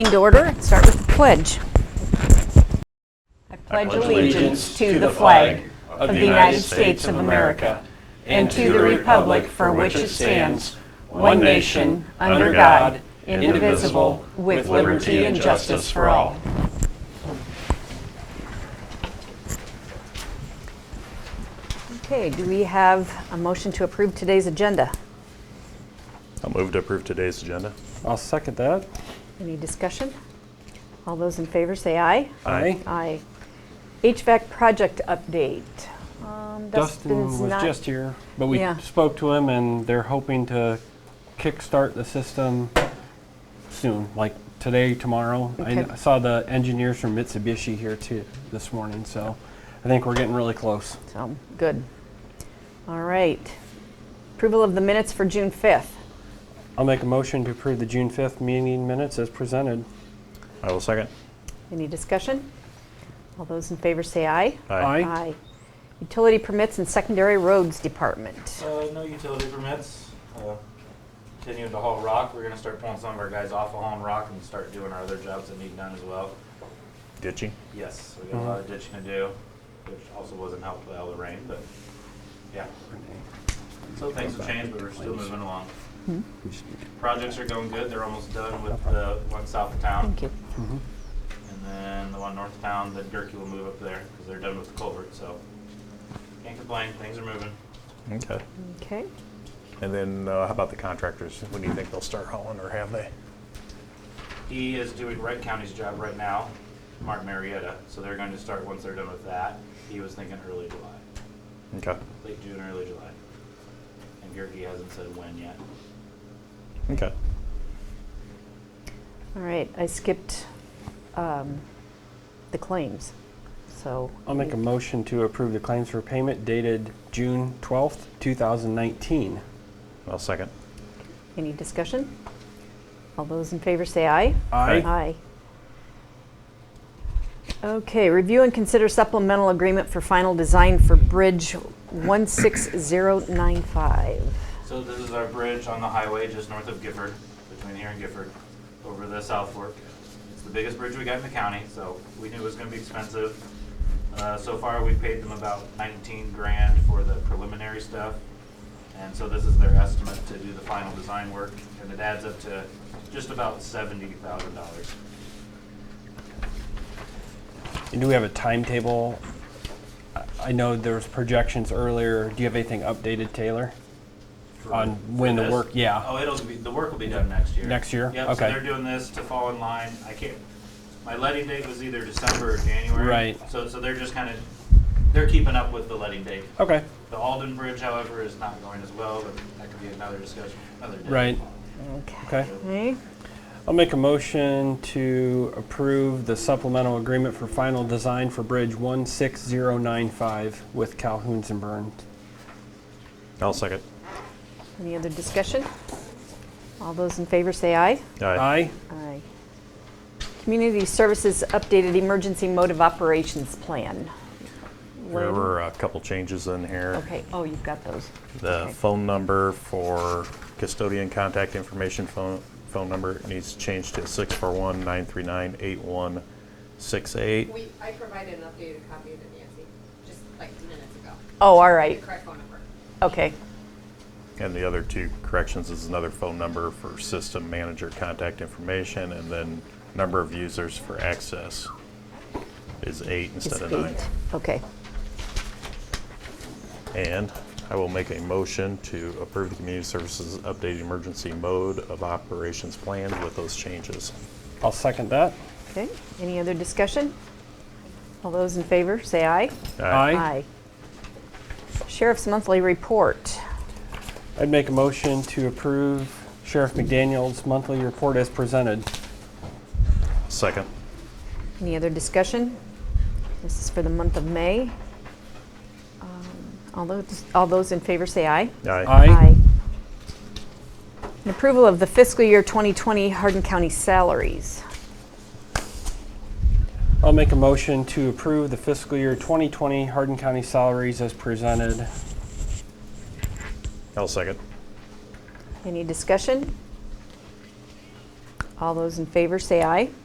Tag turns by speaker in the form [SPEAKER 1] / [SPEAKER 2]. [SPEAKER 1] To order, and start with the pledge. I pledge
[SPEAKER 2] pledge allegiance to the flag of the United States of America and to the republic for which it stands, one nation, under God, indivisible, with liberty and justice for all.
[SPEAKER 1] Okay, do we have a motion to approve today's agenda?
[SPEAKER 2] I'll move to approve today's agenda.
[SPEAKER 3] I'll second that.
[SPEAKER 1] Any discussion? All those in favor say aye.
[SPEAKER 3] Aye.
[SPEAKER 1] Aye. HVAC project update. Um,
[SPEAKER 3] Dustin
[SPEAKER 1] Dustin's
[SPEAKER 3] was
[SPEAKER 1] not-
[SPEAKER 3] just here, but we
[SPEAKER 1] Yeah.
[SPEAKER 3] spoke to him and they're hoping to kickstart the system soon, like today, tomorrow. I kn-
[SPEAKER 1] Okay.
[SPEAKER 3] I saw the engineers from Mitsubishi here too this morning, so I think we're getting really close.
[SPEAKER 1] So, good. All right. Approval of the minutes for June 5th.
[SPEAKER 3] I'll make a motion to approve the June 5th meeting minutes as presented.
[SPEAKER 2] I will second.
[SPEAKER 1] Any discussion? All those in favor say aye.
[SPEAKER 3] Aye.
[SPEAKER 1] Aye. Utility permits and secondary roads department.
[SPEAKER 4] Uh, no utility permits. Uh, Continuing to haul rock, we're gonna start pulling some of our guys off of hauling rock and start doing our other jobs that need done as well.
[SPEAKER 2] Ditching.
[SPEAKER 4] Yes, we got a lot of ditching to do, which also wasn't helped by all the rain, but, yeah. So things have changed, but we're still moving along. Projects are going good, they're almost done with the one south of town.
[SPEAKER 1] Thank you.
[SPEAKER 4] And then the one north of town, that Gerke will move up there, because they're done with the culvert, so. Can't complain, things are moving.
[SPEAKER 2] Okay.
[SPEAKER 1] Okay.
[SPEAKER 2] And then uh, how about the contractors? When do you think they'll start hauling or have they?
[SPEAKER 4] He is doing Wright County's job right now, Mark Marietta, so they're going to start once they're done with that. He was thinking early July,
[SPEAKER 2] Okay.
[SPEAKER 4] late June, early July. And Gerke hasn't said when yet.
[SPEAKER 2] Okay.
[SPEAKER 1] All right, I skipped um, the claims, so.
[SPEAKER 3] I'll make a motion to approve the claims for payment dated June 12th, 2019.
[SPEAKER 2] I'll second.
[SPEAKER 1] Any discussion? All those in favor say aye.
[SPEAKER 2] Aye.
[SPEAKER 1] Aye. Okay, review and consider supplemental agreement for final design for Bridge 16095.
[SPEAKER 4] So this is our bridge on the highway just north of Gifford, between here and Gifford, over the South Fork. It's the biggest bridge we got in the county, so we knew it was gonna be expensive. Uh, so far, we paid them about nineteen grand for the preliminary stuff. And so this is their estimate to do the final design work, and it adds up to just about seventy thousand dollars.
[SPEAKER 3] And do we have a timetable? I- I know there was projections earlier. Do you have anything updated, Taylor? On when the work- yeah.
[SPEAKER 4] Oh, it'll be, the work will be done next year.
[SPEAKER 3] Next year?
[SPEAKER 4] Yep, so
[SPEAKER 3] Okay.
[SPEAKER 4] they're doing this to fall in line. I can't, my letting date was either December or January.
[SPEAKER 3] Right.
[SPEAKER 4] So, so they're just kind of, they're keeping up with the letting date.
[SPEAKER 3] Okay,
[SPEAKER 4] The Alden Bridge, however, is not going as well, but that could be another discussion, another day.
[SPEAKER 3] right, okay.
[SPEAKER 1] Okay,
[SPEAKER 3] I'll make a motion to approve the supplemental agreement for final design for Bridge 16095 with Calhoun's and Burns.
[SPEAKER 2] I'll second.
[SPEAKER 1] any other discussion? All those in favor say aye.
[SPEAKER 2] Aye.
[SPEAKER 3] Aye?
[SPEAKER 1] Aye. Community Services Updated Emergency Mode of Operations Plan.
[SPEAKER 2] There were a couple changes in here.
[SPEAKER 1] Okay, oh, you've got those.
[SPEAKER 2] The
[SPEAKER 1] Okay.
[SPEAKER 2] phone number for custodian contact information phone, phone number needs changed to 641-939-8168.
[SPEAKER 5] We, I provided an updated copy of it, Nancy, just like minutes ago.
[SPEAKER 1] Oh, all
[SPEAKER 5] The
[SPEAKER 1] right,
[SPEAKER 5] correct phone number.
[SPEAKER 1] okay,
[SPEAKER 2] And the other two corrections is another phone number for system manager contact information and then number of users for access is eight instead of nine.
[SPEAKER 1] eight. okay.
[SPEAKER 2] And I will make a motion to approve the community services updated emergency mode of operations plan with those changes.
[SPEAKER 3] I'll second that.
[SPEAKER 1] Okay, any other discussion? All those in favor, say aye.
[SPEAKER 3] Aye.
[SPEAKER 1] Sheriff's Monthly Report.
[SPEAKER 3] I'd make a motion to approve Sheriff McDaniel's monthly report as presented.
[SPEAKER 2] Second.
[SPEAKER 1] Any other discussion? This is for the month of May. Um, All those, all those in favor, say aye.
[SPEAKER 3] Aye.
[SPEAKER 1] An approval of the fiscal year 2020 Hardin County salaries.
[SPEAKER 3] I'll make a motion to approve the fiscal year 2020 Hardin County salaries as presented.
[SPEAKER 2] I'll second.
[SPEAKER 1] Any discussion? All those in favor, say aye.